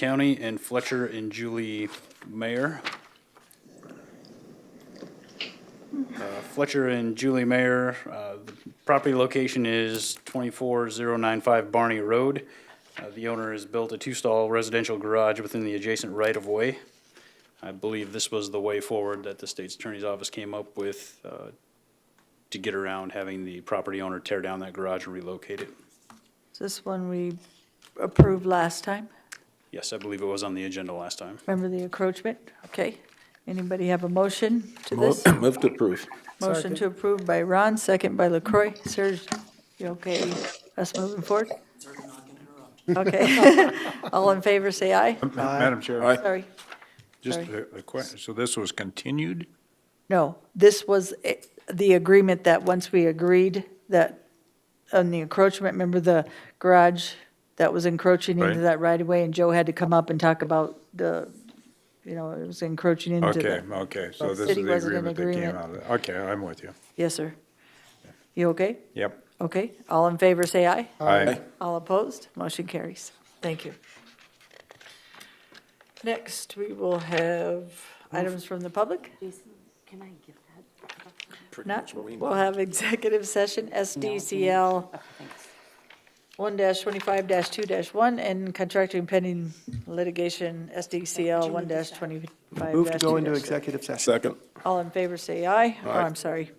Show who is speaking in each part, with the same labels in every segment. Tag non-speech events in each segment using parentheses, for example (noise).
Speaker 1: County and Fletcher and Julie Mayer. Uh, Fletcher and Julie Mayer, uh, the property location is 24095 Barney Road. Uh, The owner has built a two-stall residential garage within the adjacent right-of-way. I believe this was the way forward that the state's attorney's office came up with uh, to get around having the property owner tear down that garage and relocate it.
Speaker 2: Is this one we approved last time?
Speaker 1: Yes, I believe it was on the agenda last time.
Speaker 2: Remember the encroachment? Okay. Anybody have a motion to
Speaker 3: Mo-
Speaker 2: this?
Speaker 3: (coughs) Move to approve.
Speaker 2: Motion to approve by Ron, second by LaCroy. Serge, you okay? Us moving forward? Okay. (laughs) All in favor, say aye.
Speaker 4: Madam Chair,
Speaker 3: Aye.
Speaker 2: Sorry.
Speaker 4: just
Speaker 2: sorry.
Speaker 4: a question. So this was continued?
Speaker 2: No, this was eh, the agreement that once we agreed that on the encroachment, remember the garage that was encroaching into
Speaker 4: Right.
Speaker 2: that right of way and Joe had to come up and talk about the, you know, it was encroaching into
Speaker 4: Okay,
Speaker 2: the.
Speaker 4: okay, so
Speaker 2: the
Speaker 4: this
Speaker 2: city
Speaker 4: is the
Speaker 2: wasn't in
Speaker 4: agreement that
Speaker 2: agreement.
Speaker 4: came out of it. Okay, I'm with you.
Speaker 2: Yes, sir. You okay?
Speaker 4: Yep.
Speaker 2: Okay. All in favor, say aye.
Speaker 4: Aye.
Speaker 2: All opposed? Motion carries. Thank you. Next, we will have items from the public.
Speaker 5: Jason, can I give that?
Speaker 2: Not, we'll have executive session, SDCL one twenty-five two one, and contracting pending litigation, SDCL one twenty-five
Speaker 6: Move to go into executive session.
Speaker 3: Second.
Speaker 2: All in favor, say aye. Oh, I'm sorry.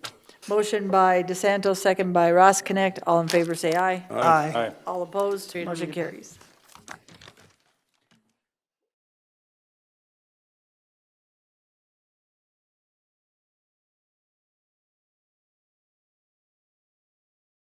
Speaker 2: Motion by DeSanto, second by Ross Connect. All in favor, say aye.
Speaker 6: Aye.
Speaker 4: Aye.
Speaker 2: All opposed, motion carries.